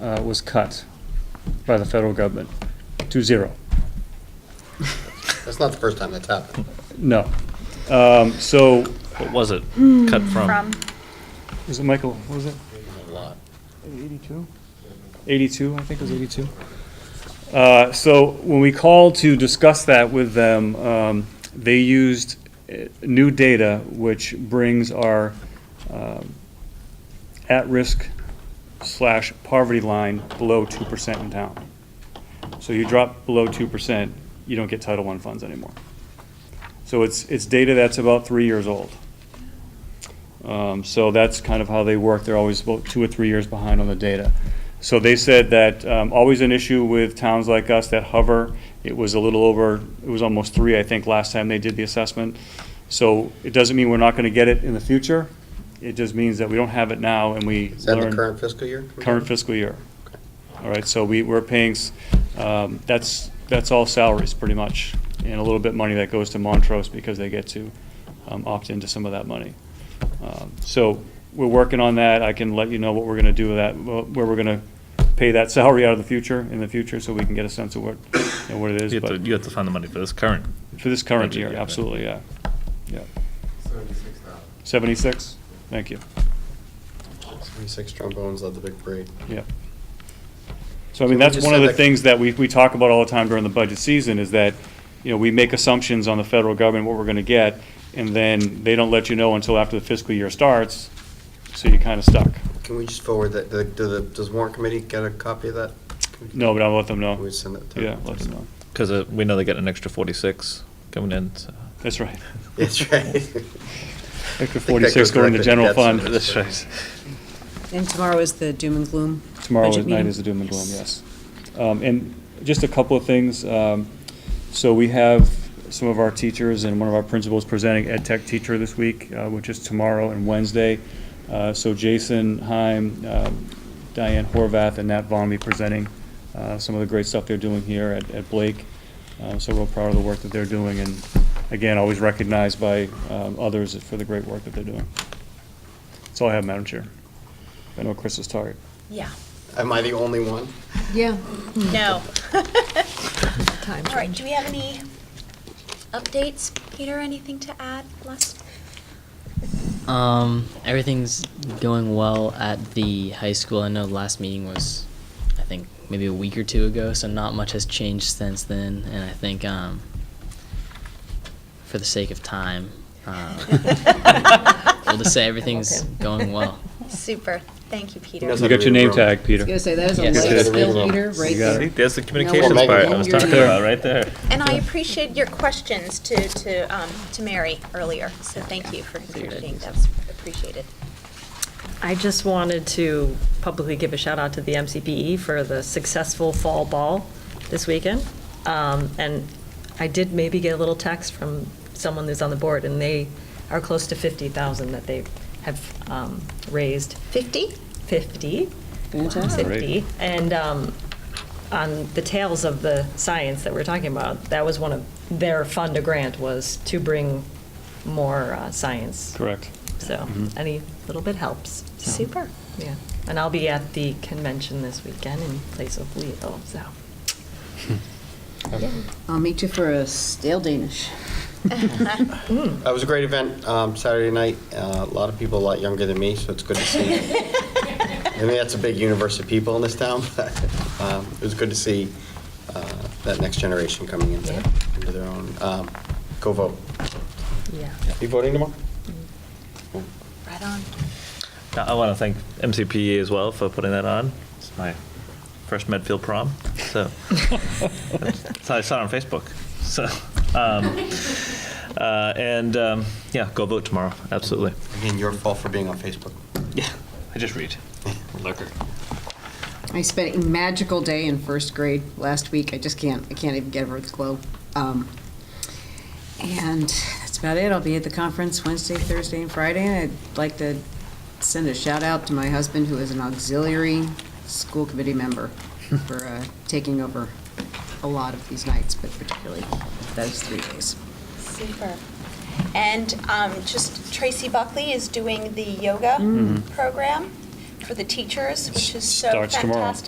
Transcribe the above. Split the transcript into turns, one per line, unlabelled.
uh, was cut by the federal government to zero.
That's not the first time that's happened.
No. Um, So,
What was it cut from?
from.
was it Michael, what was it?
A lot.
82? 82, I think it was 82. Uh, So when we called to discuss that with them, um, they used uh, new data, which brings our um, at-risk slash poverty line below 2% in town. So you drop below 2%, you don't get Title I funds anymore. So it's, it's data that's about three years old. Um, So that's kind of how they work. They're always about two or three years behind on the data. So they said that um, always an issue with towns like us that hover. It was a little over, it was almost three, I think, last time they did the assessment. So it doesn't mean we're not going to get it in the future. It just means that we don't have it now and we learn.
Is that in the current fiscal year?
Current fiscal year. All right, so we, we're paying, s- um, that's, that's all salaries, pretty much, and a little bit money that goes to Montrose because they get to um, opt into some of that money. Um, So we're working on that. I can let you know what we're gonna do with that, wh- where we're gonna pay that salary out of the future, in the future, so we can get a sense of what, you know, what it is.
You have to,
But
you have to find the money for this current.
for this current
budget,
year,
yeah.
absolutely, yeah. Yeah.
Seventy-six thousand.
Seventy-six? Thank you.
Six trombones led the big parade.
Yeah. So I
So we
mean, that's
just
one of
said
the
that-
things that we, we talk about all the time during the budget season is that, you know, we make assumptions on the federal government, what we're gonna get, and then they don't let you know until after the fiscal year starts, so you're kinda stuck.
Can we just forward that, the- do the, does warrant committee get a copy of that? Can
No, but I'll let them
we
know.
send it to
Yeah, let them know.
Because we know they got an extra 46 coming in. so-
That's right.
That's right.
Extra
that
forty-six
goes
going to
directly to
general
debt
fund.
service, That's right.
And tomorrow is the doom and gloom.
Tomorrow
budget
is- night
meeting.
is the doom and gloom, yes. Um, And just a couple of things. um, So we have some of our teachers and one of our principals presenting Ed Tech teacher this week, uh, which is tomorrow and Wednesday. Uh, So Jason Heim, um, Diane Horvath, and Nat Vaughn will be presenting uh, some of the great stuff they're doing here at- at Blake. Uh, So we're proud of the work that they're doing, and again, always recognized by um, others for the great work that they're doing. That's all I have, Madam Chair. I know Chris is tired.
Yeah.
Am I the only one?
Yeah.
No.
Time
All right, do we have any updates? Peter, anything to add? Les?
Um, everything's going well at the high school. I know the last meeting was, I think, maybe a week or two ago, so not much has changed since then. And I think, um, for the sake of time, um, we'll just say everything's going well.
Super. Thank you, Peter.
knows
You got your name tag,
I was
Peter.
gonna say, that is a
Yes.
life
Yes.
skill, Peter, right
You got it.
there.
See, There's the
Well,
communications
maybe-
part I was talking
There.
about, right there.
And I appreciate your questions to, to, um, to Mary earlier, so thank you for contributing. That's appreciated.
I just wanted to publicly give a shout out to the MCPE E for the successful fall ball this weekend. Um, And I did maybe get a little text from someone who's on the board, and they are close to 50,000 that they have um, raised.
50?
50.
Fantastic.
50. And um, on the tails of the science that we're talking about, that was one of their fund to grant was to bring more uh, science.
Correct.
So any little bit helps. so.
Super.
Yeah, and I'll be at the convention this weekend in place of Leo, so.
I'll meet you for a stale Danish.
That was a great event, um, Saturday night. Uh, A lot of people a lot younger than me, so it's good to see. I mean, that's a big universe of people in this town, but um, it was good to see uh, that next generation coming into into their own. Um, Go vote.
Yeah.
You voting tomorrow?
Right on.
Now, I want to thank MCPE E as well for putting that on. It's my first Medfield prom, so. so I saw it on Facebook. So, um, uh, and um, yeah, go vote tomorrow. Absolutely.
Again, your fault for being on Facebook.
Yeah, I just read. Lurker.
I spent a magical day in first grade last week. I just can't, I can't even get over the glow. Um, and that's about it. I'll be at the conference Wednesday, Thursday, and Friday. And I'd like to send a shout out to my husband, who is an auxiliary school committee member, for uh, taking over a lot of these nights, but particularly those three days.
Super. And um, just Tracy Buckley is doing the yoga program for the teachers, which is so
Mm-hmm. Starts tomorrow.
fantastic.